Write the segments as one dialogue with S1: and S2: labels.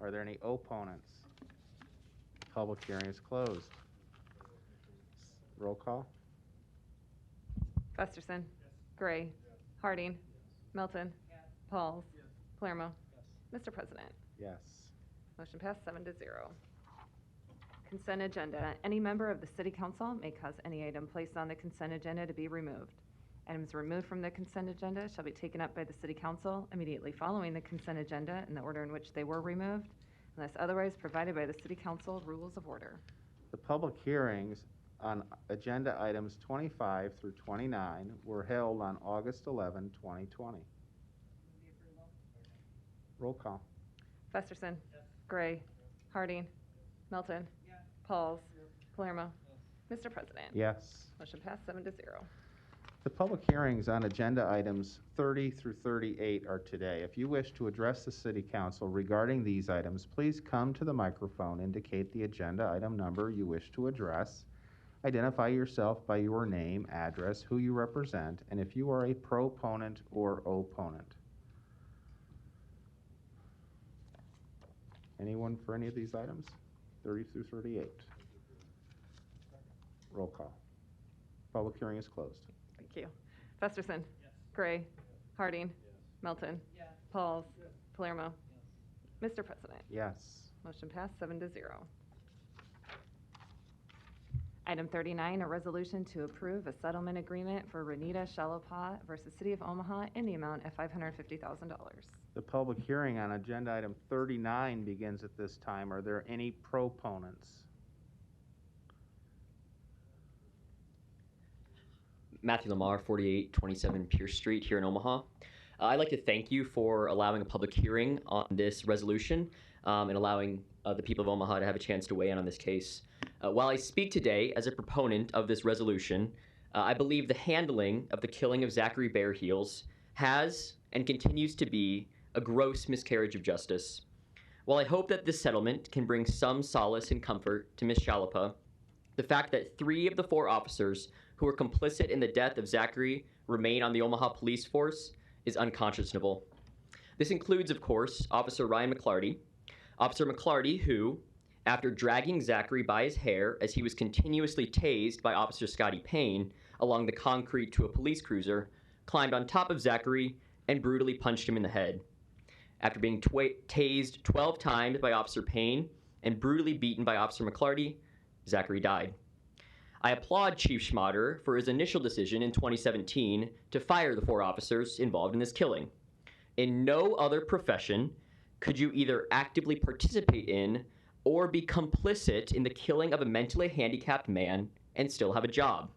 S1: Are there any opponents? Public hearing is closed. Roll call?
S2: Festerson. Gray. Harding. Melton. Pauls. Palermo. Mr. President,
S1: Yes.
S2: motion passed seven to zero. Consent agenda. Any member of the city council may cause any item placed on the consent agenda to be removed. Items removed from the consent agenda shall be taken up by the city council immediately following the consent agenda in the order in which they were removed, unless otherwise provided by the city council rules of order.
S1: The public hearings on agenda items 25 through 29 were held on August 11, 2020. Roll call?
S2: Festerson. Gray. Harding. Melton. Pauls. Palermo. Mr. President.
S1: Yes.
S2: Motion passed seven to zero.
S1: The public hearings on agenda items 30 through 38 are today. If you wish to address the city council regarding these items, please come to the microphone, indicate the agenda item number you wish to address, identify yourself by your name, address, who you represent, and if you are a proponent or opponent. Anyone for any of these items? 30 through 38. Roll call. Public hearing is closed.
S2: Thank you. Festerson. Gray. Harding. Melton. Pauls. Palermo. Mr. President.
S1: Yes.
S2: Motion passed seven to zero. Item thirty-nine, a resolution to approve a settlement agreement for Renita Shalapa versus City of Omaha in the amount of five hundred and fifty thousand dollars.
S1: The public hearing on agenda item 39 begins at this time. Are there any proponents?
S3: Matthew Lamar, 4827 Pierce Street here in Omaha. Uh, I'd like to thank you for allowing a public hearing on this resolution um, and allowing uh, the people of Omaha to have a chance to weigh in on this case. Uh, while I speak today as a proponent of this resolution, uh, I believe the handling of the killing of Zachary Bear Heels has and continues to be a gross miscarriage of justice. While I hope that this settlement can bring some solace and comfort to Ms. Shalapa, the fact that three of the four officers who were complicit in the death of Zachary remain on the Omaha police force is unconscionable. This includes, of course, Officer Ryan McClarty. Officer McClarty, who, after dragging Zachary by his hair as he was continuously tased by Officer Scotty Payne along the concrete to a police cruiser, climbed on top of Zachary and brutally punched him in the head. After being twa- tased 12 times by Officer Payne and brutally beaten by Officer McClarty, Zachary died. I applaud Chief Schmader for his initial decision in 2017 to fire the four officers involved in this killing. In no other profession could you either actively participate in or be complicit in the killing of a mentally handicapped man and still have a job.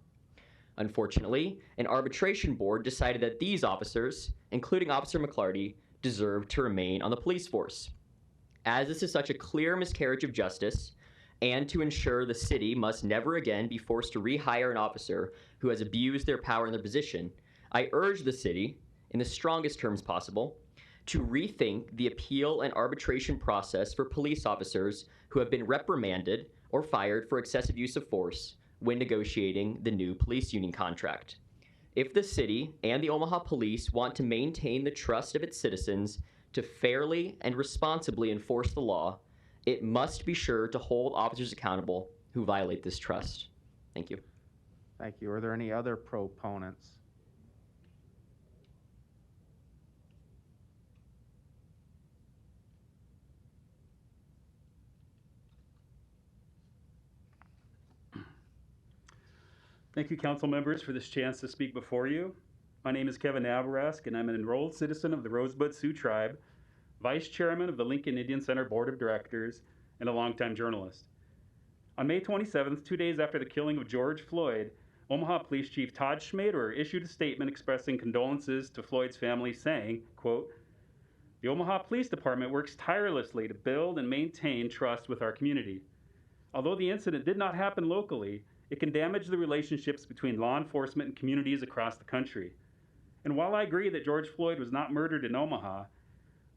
S3: Unfortunately, an arbitration board decided that these officers, including Officer McClarty, deserved to remain on the police force. As this is such a clear miscarriage of justice, and to ensure the city must never again be forced to rehire an officer who has abused their power in their position, I urge the city, in the strongest terms possible, to rethink the appeal and arbitration process for police officers who have been reprimanded or fired for excessive use of force when negotiating the new police union contract. If the city and the Omaha police want to maintain the trust of its citizens to fairly and responsibly enforce the law, it must be sure to hold officers accountable who violate this trust. Thank you.
S1: Thank you. Are there any other proponents?
S4: Thank you, council members, for this chance to speak before you. My name is Kevin Navarask, and I'm an enrolled citizen of the Rosebud Sioux Tribe, vice chairman of the Lincoln Indian Center Board of Directors, and a longtime journalist. On May 27th, two days after the killing of George Floyd, Omaha Police Chief Todd Schmader issued a statement expressing condolences to Floyd's family, saying, quote, "The Omaha Police Department works tirelessly to build and maintain trust with our community. Although the incident did not happen locally, it can damage the relationships between law enforcement and communities across the country. And while I agree that George Floyd was not murdered in Omaha,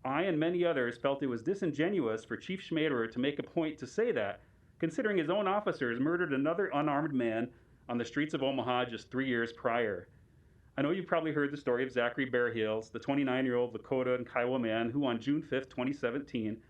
S4: I and many others felt it was disingenuous for Chief Schmaderer to make a point to say that, considering his own officers murdered another unarmed man on the streets of Omaha just three years prior. I know you've probably heard the story of Zachary Bear Hills, the 29 year old Lakota and Kiowa man who, on June 5, 2017,